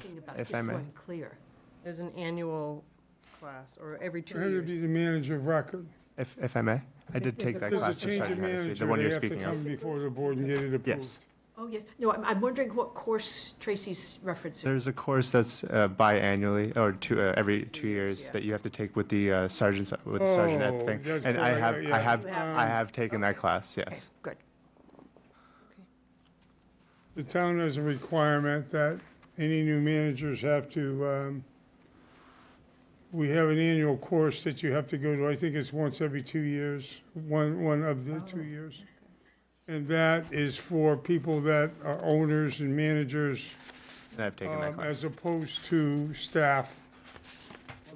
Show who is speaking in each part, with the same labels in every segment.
Speaker 1: Thinking about
Speaker 2: if
Speaker 1: just
Speaker 2: I
Speaker 1: so
Speaker 2: may.
Speaker 1: I'm clear.
Speaker 3: There's an annual class, or every two
Speaker 4: Had to be
Speaker 3: years.
Speaker 4: the manager of record.
Speaker 2: If, if I may, I did take that
Speaker 4: If there's
Speaker 2: class
Speaker 4: a
Speaker 2: for
Speaker 4: change of
Speaker 2: Sergeant Hennessy,
Speaker 4: manager,
Speaker 2: the one
Speaker 4: they
Speaker 2: you're
Speaker 4: have to
Speaker 2: speaking
Speaker 4: come
Speaker 2: of.
Speaker 4: before the board and get it approved.
Speaker 2: Yes.
Speaker 1: Oh, yes, no, I'm, I'm wondering what course Tracy's referencing.
Speaker 2: There's a course that's uh, biannually, or two, uh, every two
Speaker 1: years,
Speaker 2: years,
Speaker 1: yeah.
Speaker 2: that you have to take with the uh, sergeants, with the Sergeant Ed
Speaker 4: Oh,
Speaker 2: thing.
Speaker 4: that's
Speaker 2: And I
Speaker 4: right,
Speaker 2: have,
Speaker 4: yeah.
Speaker 2: I have,
Speaker 1: You have
Speaker 2: I
Speaker 1: one.
Speaker 2: have taken that class,
Speaker 1: Okay,
Speaker 2: yes.
Speaker 1: Good.
Speaker 4: The town has a requirement that any new managers have to, um, we have an annual course that you have to go to, I think it's once every two years, one, one of the two years. And that is for people that are owners and managers,
Speaker 2: And I've taken that
Speaker 4: um,
Speaker 2: class.
Speaker 4: as opposed to staff.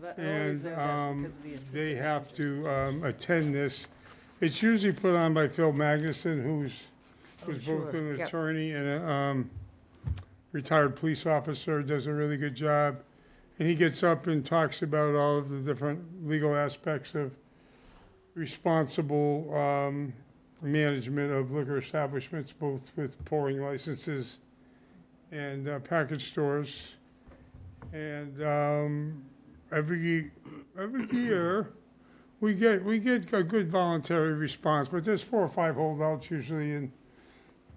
Speaker 3: Well, that- I always
Speaker 4: And
Speaker 3: know that's
Speaker 4: um,
Speaker 3: because of the assistant
Speaker 4: they have
Speaker 3: managers.
Speaker 4: to um, attend this. It's usually put on by Phil Magnuson, who's, who's both
Speaker 1: Oh, sure.
Speaker 4: an
Speaker 1: Yep.
Speaker 4: attorney and a um, retired police officer, does a really good job. And he gets up and talks about all of the different legal aspects of responsible um, management of liquor establishments, both with pouring licenses and uh, package stores. And um, every, every year, we get, we get a good voluntary response, but there's four or five holdouts usually, and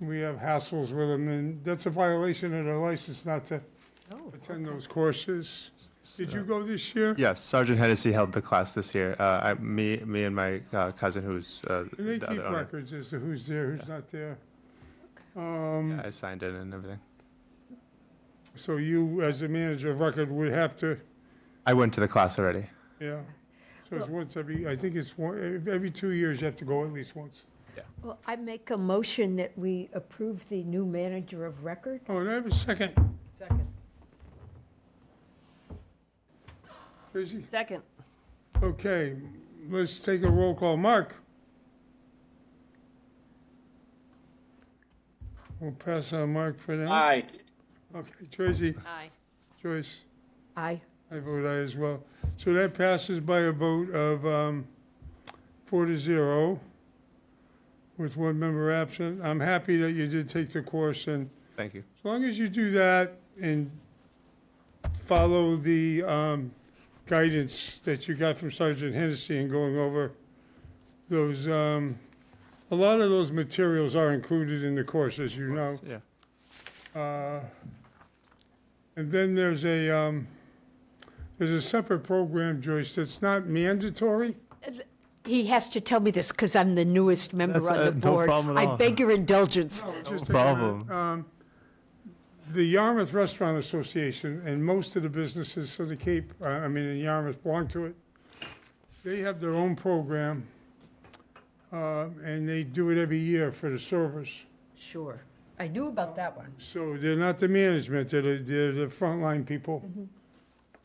Speaker 4: we have hassles with them, and that's a violation of their license not to
Speaker 3: Oh,
Speaker 4: attend those courses. Did you go this year?
Speaker 2: uh, Yes, Sergeant Hennessy held the class this year. Uh, I, me, me and my uh, cousin, who's uh,
Speaker 4: And they
Speaker 2: the
Speaker 4: keep
Speaker 2: other owner.
Speaker 4: records as to who's there, who's not there.
Speaker 2: Yeah,
Speaker 4: Um,
Speaker 2: I signed in and everything.
Speaker 4: so you, as a manager of record, would have to,
Speaker 2: I went to the class already.
Speaker 4: yeah. So it's once every, I think it's one, every two years you have to go at least once.
Speaker 1: Well, I make a motion that we approve the new manager of record.
Speaker 4: Oh, and I have a second,
Speaker 3: second.
Speaker 4: Tracy?
Speaker 3: Second.
Speaker 4: Okay, let's take a roll call. Mark? We'll pass on Mark for now.
Speaker 5: Aye.
Speaker 4: Okay, Tracy,
Speaker 3: Aye.
Speaker 4: Joyce,
Speaker 1: Aye.
Speaker 4: I vote aye as well. So that passes by a vote of um, four to zero with one member absent. I'm happy that you did take the course, and
Speaker 2: Thank you.
Speaker 4: as long as you do that and follow the um, guidance that you got from Sergeant Hennessy in going over those, um, a lot of those materials are included in the course, as you know.
Speaker 2: Yeah.
Speaker 4: Uh, And then there's a, um, there's a separate program, Joyce, that's not mandatory.
Speaker 1: He has to tell me this because I'm the newest member
Speaker 2: That's,
Speaker 1: on
Speaker 2: uh,
Speaker 1: the
Speaker 2: no
Speaker 1: board.
Speaker 2: problem at
Speaker 1: I
Speaker 2: all.
Speaker 1: beg your indulgence.
Speaker 4: Just a
Speaker 2: problem.
Speaker 4: minute. Um, The Yarmouth Restaurant Association and most of the businesses of the Cape, uh, I mean, in Yarmouth belong to it. They have their own program, uh, and they do it every year for the service.
Speaker 1: Sure. I knew about that one.
Speaker 4: So they're not the management, they're, the- they're the frontline people.
Speaker 1: Mm-hmm.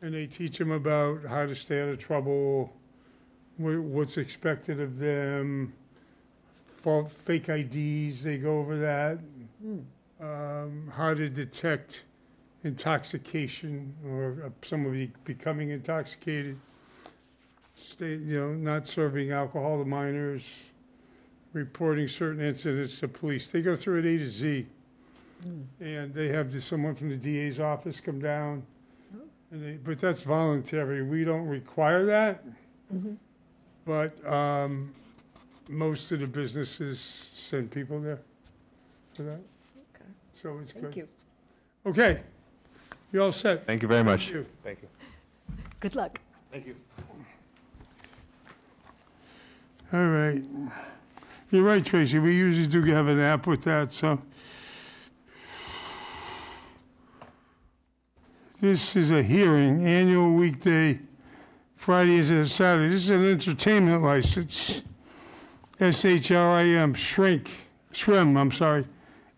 Speaker 4: And they teach them about how to stay out of trouble, wha- what's expected of them, fa- fake IDs, they go over that.
Speaker 1: Mm,
Speaker 4: Um, How to detect intoxication or uh, somebody becoming intoxicated. Stay, you know, not serving alcohol to minors, reporting certain incidents to police. They go through it A to Z. And they have just someone from the DA's office come down. And they, but that's voluntary. We don't require that. But um, most of the businesses send people there for that. So it's good.
Speaker 1: Thank you.
Speaker 4: Okay. You all set?
Speaker 2: Thank you very much.
Speaker 4: Thank you.
Speaker 2: Thank you.
Speaker 1: Good luck.
Speaker 2: Thank you.
Speaker 4: All right. You're right, Tracy. We usually do have an app with that, so. This is a hearing, annual weekday, Fridays and Saturdays. This is an entertainment license. SHRIM, Shrink, Shrim, I'm sorry,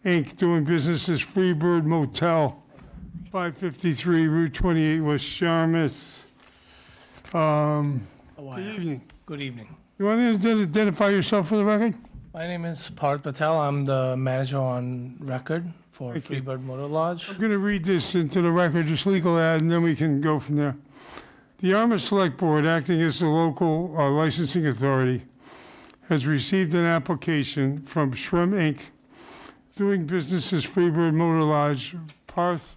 Speaker 4: Inc., doing business as Freebird Motel, 553 Route 28, West Yarmouth. Um, Good evening.
Speaker 6: Good evening.
Speaker 4: You want to ident- identify yourself for the record?
Speaker 6: My name is Parth Patel. I'm the manager on record for
Speaker 4: Thank you.
Speaker 6: Freebird Motor Lodge.
Speaker 4: I'm going to read this into the record, just legal ad, and then we can go from there. The Yarmouth Select Board, acting as the local uh, licensing authority, has received an application from Shrim Inc., doing business as Freebird Motor Lodge, Parth